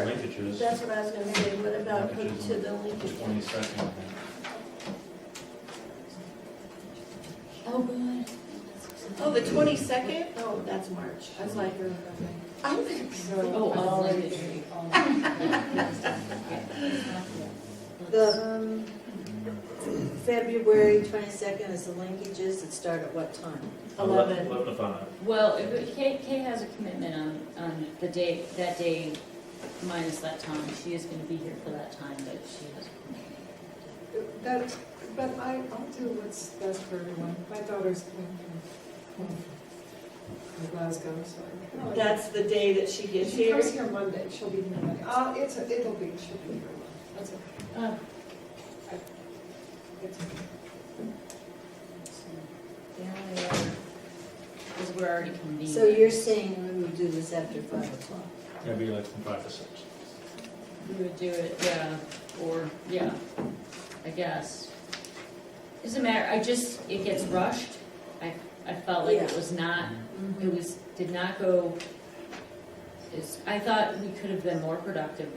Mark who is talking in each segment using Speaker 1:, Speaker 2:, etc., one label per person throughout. Speaker 1: Leach's.
Speaker 2: That's what I was gonna say, what about put to the Lincoln?
Speaker 1: Twenty-second.
Speaker 2: Oh, good.
Speaker 3: Oh, the twenty-second?
Speaker 2: Oh, that's March.
Speaker 3: I was like,
Speaker 2: I'm gonna be so.
Speaker 3: oh, all in
Speaker 4: The um, February twenty-second is the linkages that start at what time?
Speaker 2: Eleven.
Speaker 1: Eleven to five.
Speaker 5: Well, if- Kay, Kay has a commitment on, on the day, that day minus that time. She is gonna be here for that time, but she has a commitment.
Speaker 6: That, but I, I'll do what's best for everyone. My daughter's coming from, home from Glasgow, so. I-
Speaker 3: That's the day that she gets
Speaker 6: She
Speaker 3: here.
Speaker 6: comes here Monday, she'll be here Monday. Uh, it's, a- it'll be, she'll be here. That's okay.
Speaker 5: Oh.
Speaker 6: It's okay.
Speaker 5: so The only other is we're already convened.
Speaker 4: So you're saying we would do this after five o'clock?
Speaker 1: That'd be like from five to six.
Speaker 5: We would do it, yeah, or, yeah, I guess. Doesn't matter, I just, it gets rushed. I, I felt like it
Speaker 4: Yeah.
Speaker 5: was not,
Speaker 4: Mm-hmm.
Speaker 5: it was, did not go, it's, I thought we could have been more productive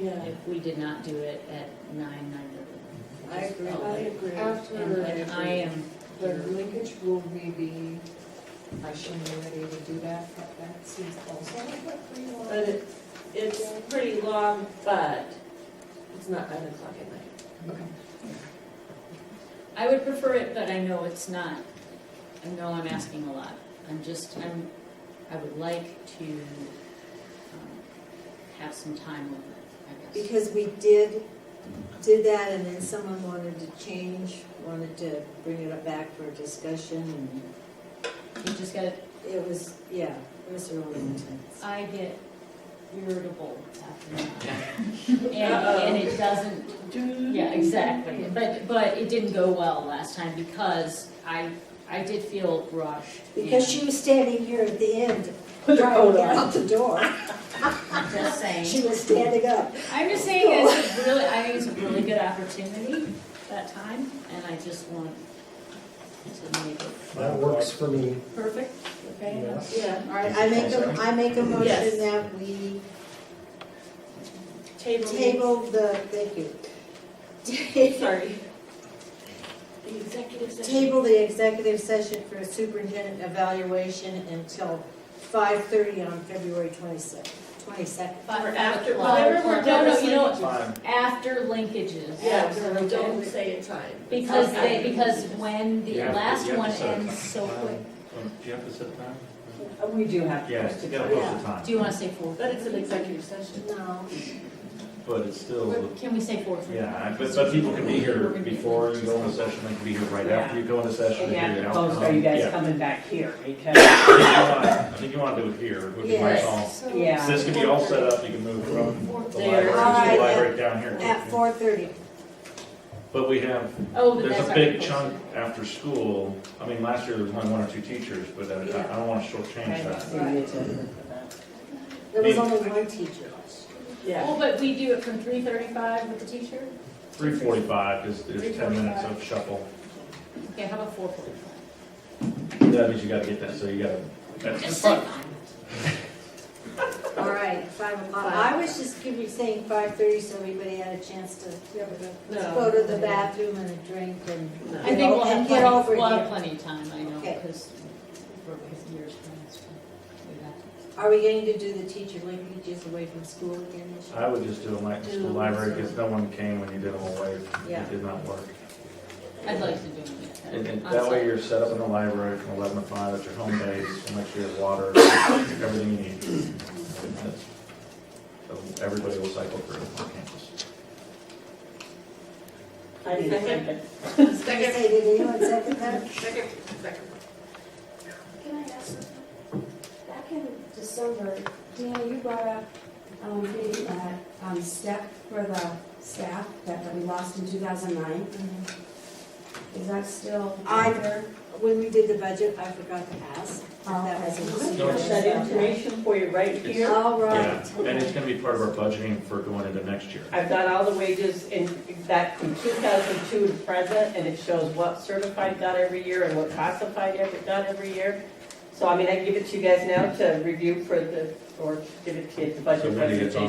Speaker 2: Yeah.
Speaker 5: if we did not do it at nine, nine thirty.
Speaker 4: I agree.
Speaker 6: Oh, I agree. uh, After
Speaker 5: And when I am
Speaker 6: the
Speaker 5: here,
Speaker 6: linkage rule may be, I shouldn't be ready to do that, but that seems also like what we want.
Speaker 3: But it, it's pretty long, but it's not nine o'clock at night.
Speaker 6: Okay.
Speaker 5: I would prefer it, but I know it's not, I know I'm asking a lot. I'm just, I'm, I would like to, um, have some time with it, I guess.
Speaker 4: Because we did, did that and then someone wanted to change, wanted to bring it up back for discussion and
Speaker 5: You just gotta,
Speaker 4: it was, yeah, it was really intense.
Speaker 5: I get irritable after that. And, and it doesn't, Yeah, exactly, but, but it didn't go well last time because I, I did feel rushed.
Speaker 4: Because
Speaker 5: and
Speaker 4: she was standing here at the end, trying to get out the door.
Speaker 5: I'm Just
Speaker 4: She
Speaker 5: saying,
Speaker 4: was standing up.
Speaker 5: I'm just saying it's a really, I think it's a really good opportunity that time, and I just want to make it
Speaker 7: That works for me,
Speaker 5: perfect, okay?
Speaker 7: yes.
Speaker 3: Yeah.
Speaker 4: All right, I make a, I make a
Speaker 3: Yes.
Speaker 4: motion that we
Speaker 3: Table.
Speaker 4: table the, thank you.
Speaker 3: Sorry.
Speaker 2: The executive session.
Speaker 4: Table the executive session for superintendent evaluation until five thirty on February twenty-second, twenty-second.
Speaker 5: But
Speaker 3: Or after,
Speaker 5: well,
Speaker 3: whenever we're done
Speaker 5: No,
Speaker 3: with
Speaker 5: no, you know,
Speaker 3: linkages.
Speaker 1: Five.
Speaker 5: after linkages.
Speaker 3: Yeah,
Speaker 6: After,
Speaker 3: so
Speaker 6: okay.
Speaker 3: don't say a time.
Speaker 5: Because they,
Speaker 3: Okay.
Speaker 5: because when the
Speaker 1: You have to-
Speaker 5: last
Speaker 1: you have to
Speaker 5: one
Speaker 1: set a
Speaker 5: ends
Speaker 1: time.
Speaker 5: so quick,
Speaker 1: Um, Do you have to set a time?
Speaker 6: We do have to.
Speaker 1: Yes, you gotta post a time,
Speaker 5: do you wanna say four?
Speaker 3: But it's an executive session.
Speaker 4: No,
Speaker 1: but it's still,
Speaker 5: Can we say four thirty?
Speaker 1: yeah, but, but people can be here before you go into session, they can be here right after you go into session.
Speaker 8: And
Speaker 1: they
Speaker 8: you
Speaker 1: can
Speaker 8: have
Speaker 1: be
Speaker 8: to
Speaker 1: out.
Speaker 8: post, are you guys
Speaker 1: Yeah.
Speaker 8: coming back here? Because,
Speaker 1: I think you wanna do it here, which is my
Speaker 4: Yes.
Speaker 1: call.
Speaker 6: So-
Speaker 8: yeah.
Speaker 1: This can be all set up, you can move from the library to the
Speaker 3: There.
Speaker 1: library down
Speaker 4: at
Speaker 1: here.
Speaker 4: four thirty.
Speaker 1: But we have,
Speaker 5: Oh, but
Speaker 1: there's
Speaker 5: that's
Speaker 1: a
Speaker 5: not
Speaker 1: big
Speaker 5: posted.
Speaker 1: chunk after school, I mean, last year there was only one or two teachers, but I, I don't wanna shortchange that.
Speaker 4: There was only one teacher last year.
Speaker 3: Yeah.
Speaker 5: Well, but we do it from three thirty-five with the teacher?
Speaker 1: Three forty-five is, is ten minutes of shuffle.
Speaker 5: Okay, how about four forty-five?
Speaker 1: That means you gotta get that, so you gotta, that's just
Speaker 5: Just say
Speaker 1: fun.
Speaker 5: five.
Speaker 4: All right, five o'clock. I was just giving, saying five thirty so everybody had a chance to
Speaker 3: No.
Speaker 4: go to the bathroom and a drink and,
Speaker 5: I
Speaker 4: you
Speaker 5: think
Speaker 4: know,
Speaker 5: we'll have
Speaker 4: and get
Speaker 5: plenty,
Speaker 4: over
Speaker 5: we'll have
Speaker 4: here.
Speaker 5: plenty of time, I know,
Speaker 4: Okay.
Speaker 5: because we're with years past. but we have
Speaker 4: Are we going to do the teacher linkages away from school again this
Speaker 1: I
Speaker 4: year?
Speaker 1: would just do them like the school library, because no one came when you did them away,
Speaker 4: Yeah.
Speaker 1: it did not work.
Speaker 5: to- I'd like to do it.
Speaker 1: And and
Speaker 5: on
Speaker 1: that way
Speaker 5: site.
Speaker 1: you're set up in the library from eleven to five at your home base, and make sure you have water, everything you need. That's- so Everybody will cycle through on campus.
Speaker 3: Second,
Speaker 4: Did I
Speaker 3: second,
Speaker 4: say, did anyone second that?
Speaker 3: second, second.
Speaker 9: Can I ask something? Back in December, Dana, you brought up, um, the, uh, um, step for the staff that we lost in two thousand nine. Is that still?
Speaker 4: Mm-hmm. I-
Speaker 9: there?
Speaker 4: When we did the budget, I forgot to ask if
Speaker 9: Oh,
Speaker 4: that was
Speaker 1: No,
Speaker 4: included.
Speaker 1: it's-
Speaker 4: That
Speaker 3: for you right
Speaker 1: It's-
Speaker 4: All
Speaker 1: Yeah,
Speaker 4: right.
Speaker 1: and it's gonna be part of our budgeting for going into next year.
Speaker 8: I've got all the wages in, that from 2002 to present, and it shows what certified got every year and what classified ever got every year. So I mean, I can give it to you guys now to review for the, or give it to you at the budget
Speaker 1: So when it gets on
Speaker 8: presentation.